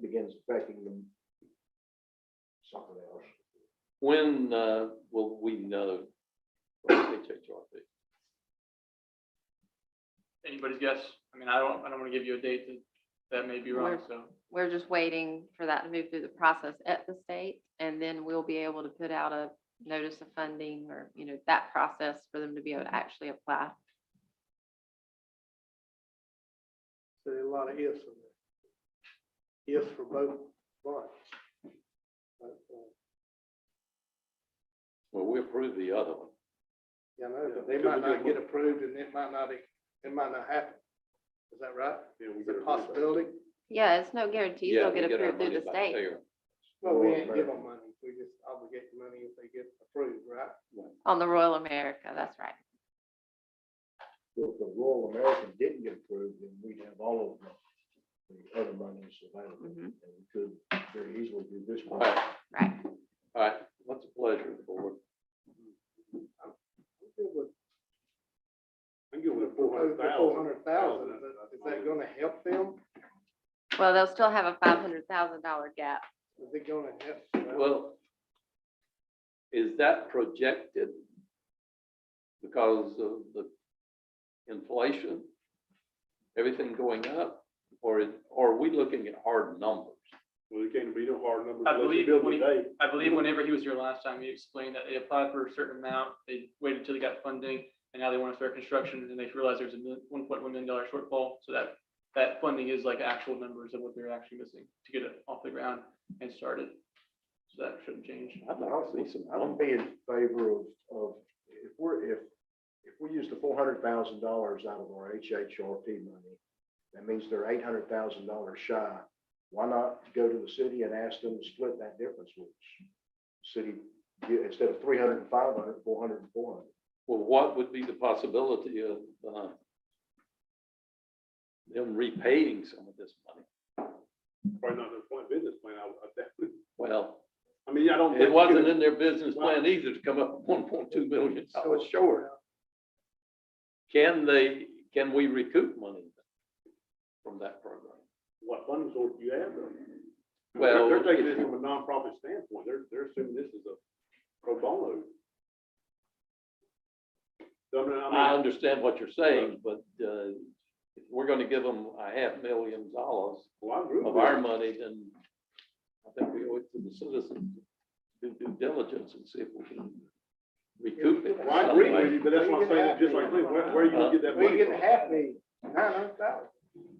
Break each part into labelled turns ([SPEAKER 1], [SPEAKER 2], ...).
[SPEAKER 1] begins affecting them. Something else.
[SPEAKER 2] When uh, will we know? from HHRP?
[SPEAKER 3] anybody's guess. I mean, I don't, I don't want to give you a date that, that may be wrong,
[SPEAKER 4] We're-
[SPEAKER 3] so.
[SPEAKER 4] We're just waiting for that to move through the process at the state, and then we'll be able to put out a notice of funding or, you know, that process for them to be able to actually apply.
[SPEAKER 5] So there are a lot of ifs in there. Ifs for both parts. But, uh,
[SPEAKER 2] Well, we approve the other one.
[SPEAKER 5] Yeah, I know, but
[SPEAKER 1] Yeah,
[SPEAKER 5] they
[SPEAKER 1] because
[SPEAKER 5] might
[SPEAKER 1] we
[SPEAKER 5] not
[SPEAKER 1] did
[SPEAKER 5] get
[SPEAKER 1] one.
[SPEAKER 5] approved and it might not, it might not happen. Is that right?
[SPEAKER 1] Yeah, we
[SPEAKER 5] Is it
[SPEAKER 1] get
[SPEAKER 5] a
[SPEAKER 1] a-
[SPEAKER 5] possibility?
[SPEAKER 4] Yeah, it's no guarantee they'll
[SPEAKER 2] Yeah, we
[SPEAKER 4] get
[SPEAKER 2] our
[SPEAKER 4] approved through
[SPEAKER 2] money
[SPEAKER 4] the
[SPEAKER 2] back
[SPEAKER 4] state.
[SPEAKER 2] there.
[SPEAKER 5] Well, we
[SPEAKER 1] Well,
[SPEAKER 5] ain't give them money. We just obligate the money if they get approved, right?
[SPEAKER 4] On the Royal America, that's right.
[SPEAKER 1] If the Royal American didn't get approved, then we'd have all of the, the other monies available.
[SPEAKER 4] Mhm.
[SPEAKER 1] And we could very easily do this
[SPEAKER 2] All
[SPEAKER 1] one.
[SPEAKER 2] right,
[SPEAKER 4] Right.
[SPEAKER 2] all right. What's a pleasure of the board?
[SPEAKER 5] I'm good with
[SPEAKER 6] I'm going with four hundred thousand.
[SPEAKER 5] Four hundred thousand, is that- is that gonna help them?
[SPEAKER 4] Well, they'll still have a five hundred thousand dollar gap.
[SPEAKER 5] Is it gonna help?
[SPEAKER 2] Well, is that projected because of the inflation? Everything going up? Or, is- or are we looking at hard numbers?
[SPEAKER 6] Well, it can't be no hard number.
[SPEAKER 3] I believe when he-
[SPEAKER 6] Today,
[SPEAKER 3] I believe whenever he was here last time, he explained that they applied for a certain amount, they waited until they got funding, and now they want to start construction, and they realized there's a one point one million dollar shortfall, so that, that funding is like actual numbers of what they're actually missing to get it off the ground and started. So that shouldn't change.
[SPEAKER 2] I'd like to see some
[SPEAKER 1] I would
[SPEAKER 2] numbers.
[SPEAKER 1] be in favor of, of, if we're, if, if we use the four hundred thousand dollars out of our HHRP money, that means they're eight hundred thousand dollars shy. Why not go to the city and ask them to split that difference with us? City, yeah, instead of three hundred and five hundred, four hundred and four hundred.
[SPEAKER 2] Well, what would be the possibility of uh, them repaying some of this money?
[SPEAKER 6] probably not their plan, business plan, I, I definitely,
[SPEAKER 2] Well,
[SPEAKER 6] I mean, I don't.
[SPEAKER 2] it wasn't in their business plan either to come up with one point two million dollars short. Can they, can we recoup money from that program?
[SPEAKER 6] What funding source do you have though?
[SPEAKER 2] Well,
[SPEAKER 6] They're they're taking this
[SPEAKER 2] if-
[SPEAKER 6] from a nonprofit standpoint, they're, they're assuming this is a pro bono. So, I mean,
[SPEAKER 2] I
[SPEAKER 6] I mean,
[SPEAKER 2] understand what you're saying, but uh, if we're going to give them a half million dollars
[SPEAKER 6] well, I agree with
[SPEAKER 2] of
[SPEAKER 6] you.
[SPEAKER 2] our money, then I think we owe it to the citizens to do due diligence and see if we can recoup it. in
[SPEAKER 6] Well, I
[SPEAKER 2] some
[SPEAKER 6] agree
[SPEAKER 2] way.
[SPEAKER 6] with you, but that's what I'm saying, just like, where, where are you gonna get that
[SPEAKER 5] We
[SPEAKER 6] money
[SPEAKER 5] get
[SPEAKER 6] from?
[SPEAKER 5] half the nine hundred thousand.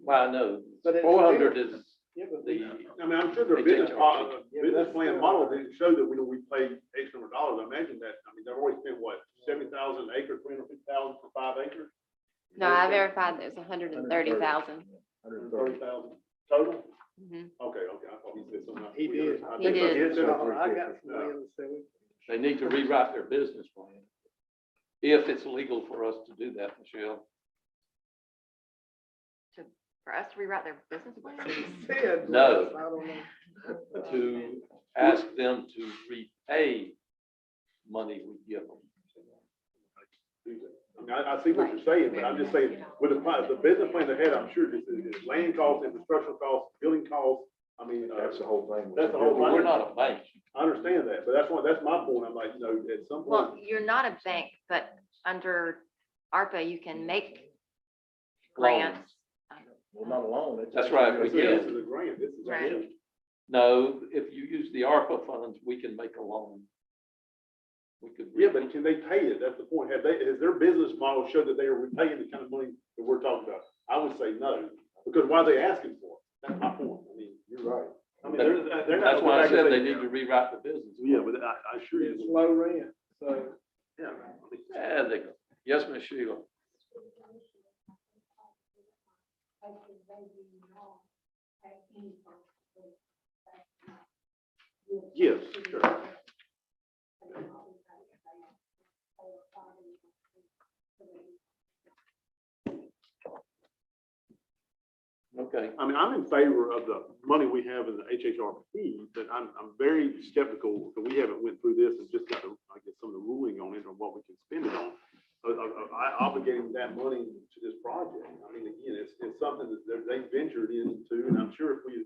[SPEAKER 2] Well, I know,
[SPEAKER 5] But it's
[SPEAKER 2] four hundred is
[SPEAKER 5] Yeah, but
[SPEAKER 2] the,
[SPEAKER 6] I mean, I'm sure
[SPEAKER 2] They
[SPEAKER 6] their business,
[SPEAKER 2] take charge.
[SPEAKER 6] mo- uh,
[SPEAKER 5] Yeah,
[SPEAKER 6] business
[SPEAKER 5] that's
[SPEAKER 6] plan
[SPEAKER 5] still-
[SPEAKER 6] model didn't show that we, we pay X number of dollars, I imagine that, I mean, they've already spent what, seventy thousand acre, three hundred fifty thousand for five acres?
[SPEAKER 4] No, I verified there's a hundred and thirty thousand.
[SPEAKER 1] Hundred and thirty.
[SPEAKER 6] Thirty thousand total?
[SPEAKER 4] Mhm.
[SPEAKER 6] Okay, okay, I thought he said something.
[SPEAKER 5] He did.
[SPEAKER 6] I
[SPEAKER 4] He
[SPEAKER 6] think
[SPEAKER 4] did.
[SPEAKER 6] I said something.
[SPEAKER 5] I got some land, so
[SPEAKER 2] they need to rewrite their business plan. If it's legal for us to do that, Michelle.
[SPEAKER 4] For us to rewrite their business plan?
[SPEAKER 5] we said.
[SPEAKER 2] No.
[SPEAKER 5] I don't know.
[SPEAKER 2] to ask them to repay money we give them.
[SPEAKER 6] I mean, I, I see what you're saying, but I'm just saying, with the, pri- the business plan they had, I'm sure this is, is land costs, infrastructure costs, building costs, I mean, uh,
[SPEAKER 1] That's the whole thing.
[SPEAKER 6] That's the whole
[SPEAKER 2] We're not a bank.
[SPEAKER 6] I understand that, but that's why, that's my point, I'm like, you know, at some point.
[SPEAKER 4] Well, you're not a bank, but under ARPA, you can make
[SPEAKER 2] Loans.
[SPEAKER 4] grants.
[SPEAKER 1] Well, not alone. it's-
[SPEAKER 2] That's right, we
[SPEAKER 6] This
[SPEAKER 2] get
[SPEAKER 6] is
[SPEAKER 2] it.
[SPEAKER 6] a grant, this is. a
[SPEAKER 4] Right.
[SPEAKER 6] grant.
[SPEAKER 2] No, if you use the ARPA funds, we can make a loan. We could.
[SPEAKER 6] Yeah, but can they pay it? That's the point. Have they, has their business model showed that they are repaying the kind of money that we're talking about? I would say no, because why are they asking for it? That's my point. I mean,
[SPEAKER 1] You're right.
[SPEAKER 6] I mean, they're, they're not.
[SPEAKER 2] That's why I said they need to rewrite the business.
[SPEAKER 6] Yeah, but I, I sure
[SPEAKER 5] It's
[SPEAKER 6] you.
[SPEAKER 5] low rent, so.
[SPEAKER 6] Yeah.
[SPEAKER 2] Yeah, they, yes, Ms. Sheila.
[SPEAKER 6] Yes, sure.
[SPEAKER 2] Okay,
[SPEAKER 6] I mean, I'm in favor of the money we have in the HHRP, but I'm, I'm very skeptical that we haven't went through this and just got, the- I guess, some of the ruling on it or what we can spend it on. Of, of, of I- obligating that money to this project. I mean, again, it's, it's something that they- they ventured into, and I'm sure if we